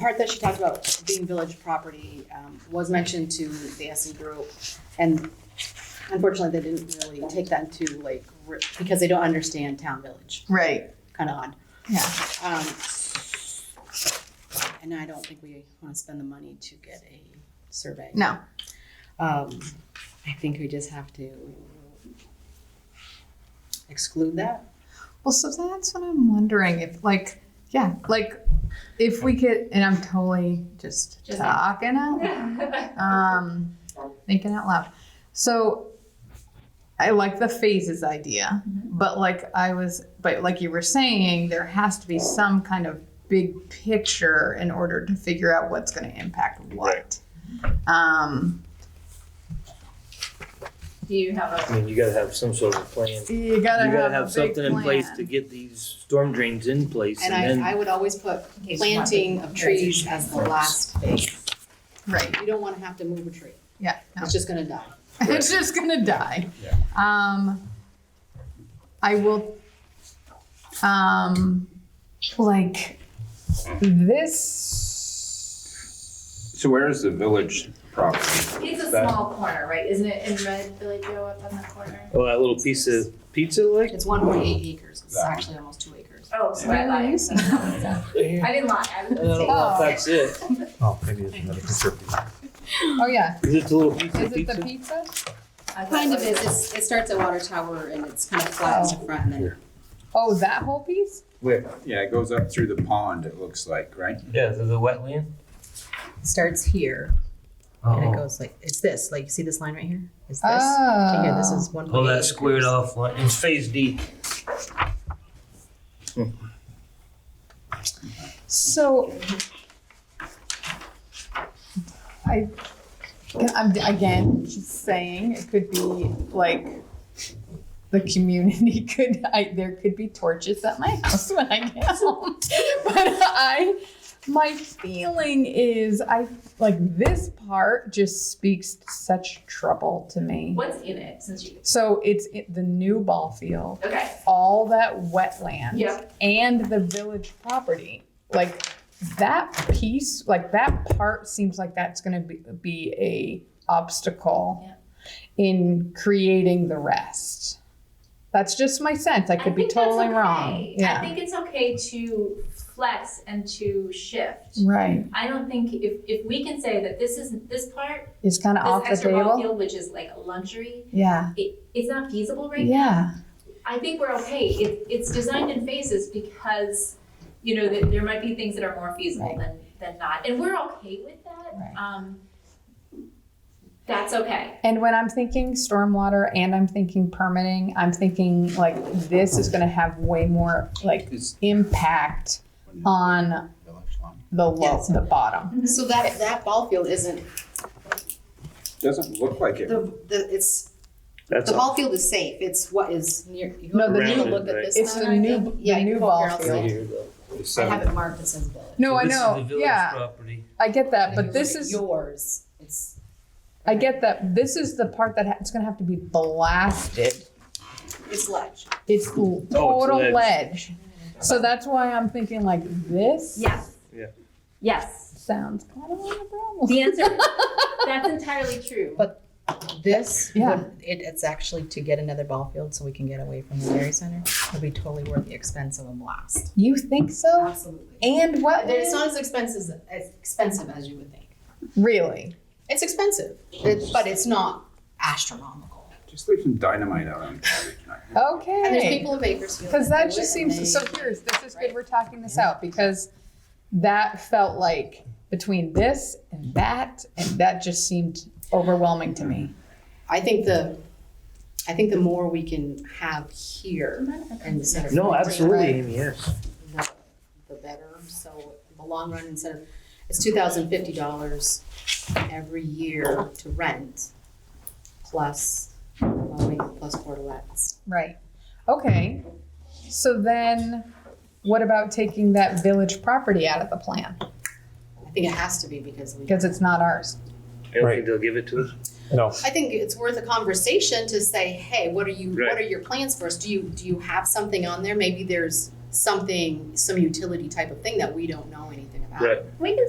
part that she talked about being village property um, was mentioned to the SE group. And unfortunately, they didn't really take that into like, re- because they don't understand town village, Right. kind of odd. Yeah. Um, And I don't think we want to spend the money to get a survey. No. Um, I think we just have to exclude that. Well, so that's what I'm wondering if, like, yeah, like if we could, and I'm totally just, Just- talking out, loud, um, thinking out loud. So I like the phases idea, but like I was, but like you were saying, there has to be some kind of big picture in order to figure out what's going to impact what. Um, Do you have I mean, you gotta have some sort of a plan. you gotta, You gotta a have big something in place plan. to get these storm drains in place And and I, I then, would always put a planting of trees as the last phase. right. You don't want to have to move a tree. Yeah. no. It's just gonna die. it's just gonna die. Yeah. Um, I will, um, like this. So where is the village property? It's a That- small corner, right? Isn't it in red, Billy Joe up on the corner? oh, that little piece of pizza like? It's one point eight acres, it's actually almost two acres. Oh, so I lied. Mm-hmm. I I didn't lie. I was don't know if that's it. Oh, maybe it's another conservative. Oh yeah, Is it the little piece is of it the pizza? pizza? I thought Kind of it is, was- it's, it starts at water tower and it's kind of flat in the front and then, Oh, that whole piece. Where, yeah, it goes up through the pond, it looks like, right? Yeah, the, the wetland? starts here and it Oh, goes like it's this. Like you see this line right here? It's this. Ah. to Oh. here. This is one. all that squared off, line. it's phase D. So. I, I'm again just saying it could be like the community could I there could be torches at my house when I get home. But I my feeling is I like this part just speaks such trouble to me. What's in it since you, So it's it, the new ball field okay. all that wetland Yep. and the village property, like that piece, like that part seems like that's gonna be, be a obstacle Yeah. in creating the rest. That's just my sense. I could be think that's totally wrong. okay. I Yeah. think it's okay to flex and to shift. Right. I don't think if, if we can say that this isn't, this part, It's kind of this off the extra ball table. field, which is like a luxury, Yeah. it, it's not feasible right now. Yeah. I think we're okay. It, it's designed in phases because, you know, that there might be things that are more feasible than, than not. And we're okay with that. Right. Um, that's okay. And when I'm thinking stormwater and I'm thinking permitting, I'm thinking like this is going to have way more like It's impact on village line. the low, Yes. the bottom. so that, that ball field isn't, Doesn't look like it. the, the, it's, That's the all. ball field is safe, it's what is near. you No, the wanna new- Look at this. It's the one, I new- think? the Yeah, new you can ball compare also. Right field. here, though. It's I have seven, it marked that says village. No, So I this is know. the village yeah, Property. I get that, And if but you look this at is Yours, it's. I get that. This is the part that ha- it's gonna have to be blasted. It's ledge. It's l- total ledge. ledge. So that's why I'm thinking like this. Yes. Yeah. Yes. Sounds kind of like a problem. The answer, that's entirely true. But- This. Yeah. would- it, it's actually to get another ball field so we can get away from the dairy center. It'll be totally worth the expense of a blast. You think so? Absolutely. And what? It's not as expensive, as expensive as you would think. Really? It's expensive, it- but it's not astronomical. just leave some dynamite out on it. And there's Okay. people in Bakersfield. Because that do just it, and seems they- so. Here's this is good. We're talking this out because that felt like between this and that and that just seemed overwhelming to me. I think the, I think the more we can have here and the center. No, front, absolutely, right, Amy, yes. The the better, so the long run, instead of, it's two thousand fifty dollars every year to rent, plus mowing, plus portalettes. Right. Okay. So then what about taking that village property out of the plan? I think it has to be because we. Because it's not ours. I don't Right. think they'll give it to us. No, I think it's worth a conversation to say, hey, what are you, what Right. are your plans for us? Do you, do you have something on there? Maybe there's something, some utility type of thing that we don't know anything about. Right. We can